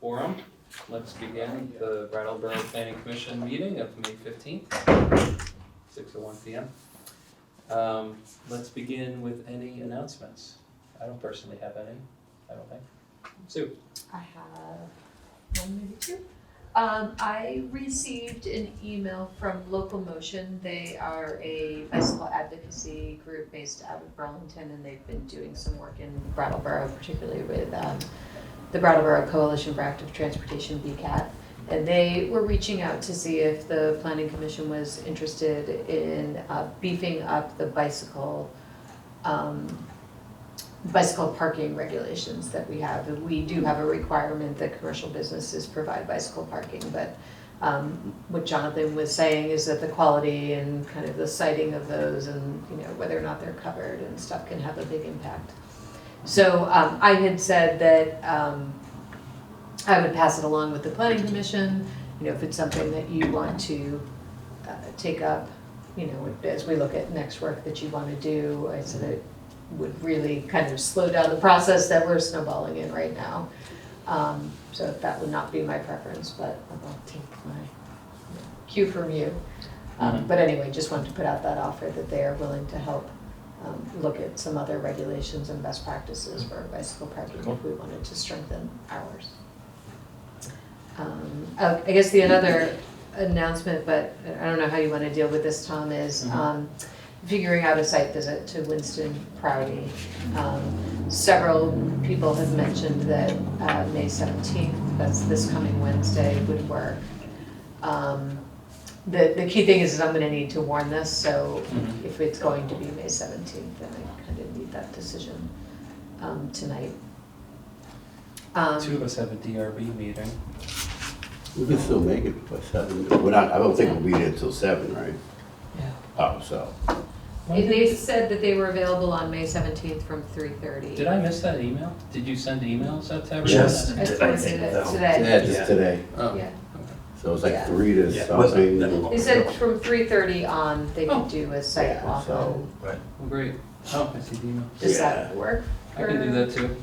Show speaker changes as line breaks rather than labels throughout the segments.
quorum. Let's begin the Brattleboro Planning Commission meeting of May fifteenth, six oh one P M. Um, let's begin with any announcements. I don't personally have any, I don't think. Sue?
I have one, maybe two. Um, I received an email from Local Motion. They are a bicycle advocacy group based out of Burlington, and they've been doing some work in Brattleboro, particularly with um, the Brattleboro Coalition for Active Transportation, BCAT. And they were reaching out to see if the Planning Commission was interested in uh, beefing up the bicycle um, bicycle parking regulations that we have. We do have a requirement that commercial businesses provide bicycle parking, but um, what Jonathan was saying is that the quality and kind of the sighting of those and, you know, whether or not they're covered and stuff can have a big impact. So um, I had said that um, I would pass it along with the planning commission, you know, if it's something that you want to uh, take up, you know, as we look at next work that you want to do, I said it would really kind of slow down the process that we're snowballing in right now. Um, so that would not be my preference, but I'll take my cue from you. Um, but anyway, just wanted to put out that offer that they are willing to help, um, look at some other regulations and best practices for bicycle parking
Cool.
if we wanted to strengthen ours. Um, oh, I guess the another announcement, but I don't know how you wanna deal with this, Tom, is,
Mhm.
um, figuring out a site visit to Winston Prouty. Um, Several people have mentioned that uh, May 17th, that's this coming Wednesday, would work. Um, The, the key thing is, is I'm gonna need to warn this, so
Mhm.
if it's going to be May 17th, then I kind of need that decision um, tonight. Um,
Two of us have a DRB meeting.
We can still make it by seven. We're not, I don't think we'll be there till seven, right?
Yeah.
Oh, so.
If They said that they were available on May 17th from 3:30.
Did I miss that email? Did you send emails out to everyone?
Just-
I
I think
posted it
that-
today,
Yeah, just today.
Oh.
yeah.
So it's
Yeah.
like three to
Yeah,
something.
wasn't that-
They said from three thirty on, they
Oh.
could do a site
Yeah,
walk
so-
on,
Well, Great. Oh, I see the email.
does that work?
I can do that too.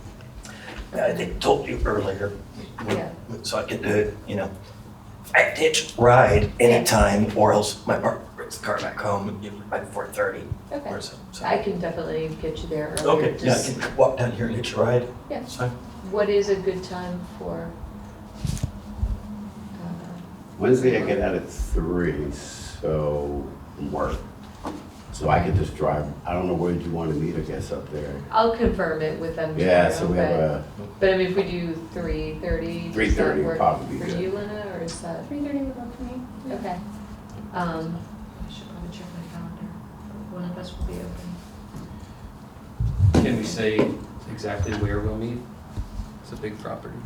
I think Uh, told you earlier,
Yeah.
so I could do it, you know. I ditch ride anytime or else my bar, brings the car back home you know, by four thirty
Okay,
or so. so.
I can definitely get you there earlier.
Okay, yeah, I
Just
can walk down here and ditch a ride.
Yeah.
It's fine.
What is a good time for? uh,
Wednesday I get out at three, so from work. So I could just drive. I don't know where you want to meet, I guess, up there.
I'll confirm it with them
Yeah, so we have
tomorrow,
a
but, but I mean, if we do three thirty,
three
does that
thirty would
work
probably be
for
good.
you, Lena, or is that,
Three thirty would work for me.
okay? Um, I should probably check my calendar, one of us will be open.
Can we say exactly where we'll meet? It's a big property.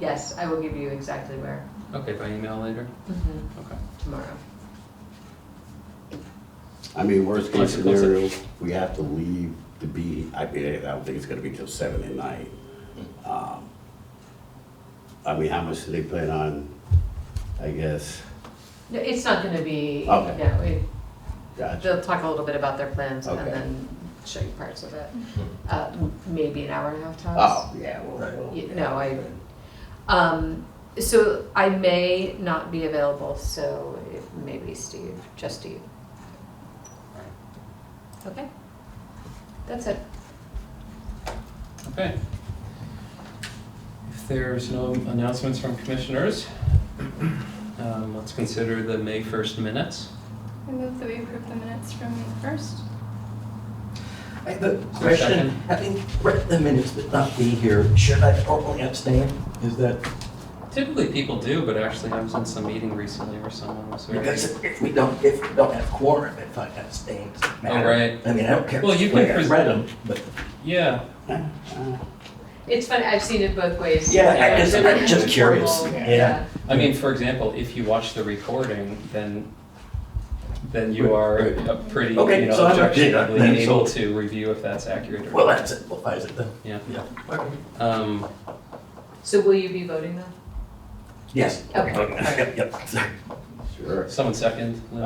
Yes, I will give you exactly where,
Okay, by email later?
mhm,
Okay.
tomorrow.
I mean, worst case
Closer, closer.
scenario, we have to leave to be, I mean, I don't think it's gonna be till seven at night. Um, I mean, how much do they plan on, I guess,
No, It's not gonna be, no,
Okay.
it,
gotcha.
they'll talk a little bit about their plans and
Okay. Mm-hmm.
then show you parts of it. Uh, m- maybe an hour and a half tops.
Oh, yeah, well,
Right.
well.
Y-
yeah,
no, I-
good.
Um, so I may not be available, so it may be Steve, just Steve. Okay, that's it.
Okay. If there's no announcements from commissioners, um, let's consider the May 1st minutes.
I move that we approve the minutes from May first.
I have a
a
question,
second?
having read the minutes but not be here, should I formally abstain? Is that,
Typically, people do, but actually, I was in some meeting recently where someone was very.
because if we don't, if we don't have quorum, if I abstain, does it matter?
Oh, right.
I mean, I don't care.
Well, you
which way
can
I
pres-
read them, but.
Yeah,
Ah,
It's funny, I've seen it both ways.
Yeah, I
Uh,
just-
they're
I'm just
informal,
curious. Yeah.
I mean, for example, if you watch the recording, then, then you are
Right,
a pretty, you
Okay,
know,
so I'm- yeah,
objectively
then
able
so-
to review if that's accurate or.
Well,
not.
that simplifies it then.
Yeah.
Yeah.
Um,
So will you be voting though?
Yes.
Okay.
Yep, yep, sorry.
Sure.
someone second, Lynn?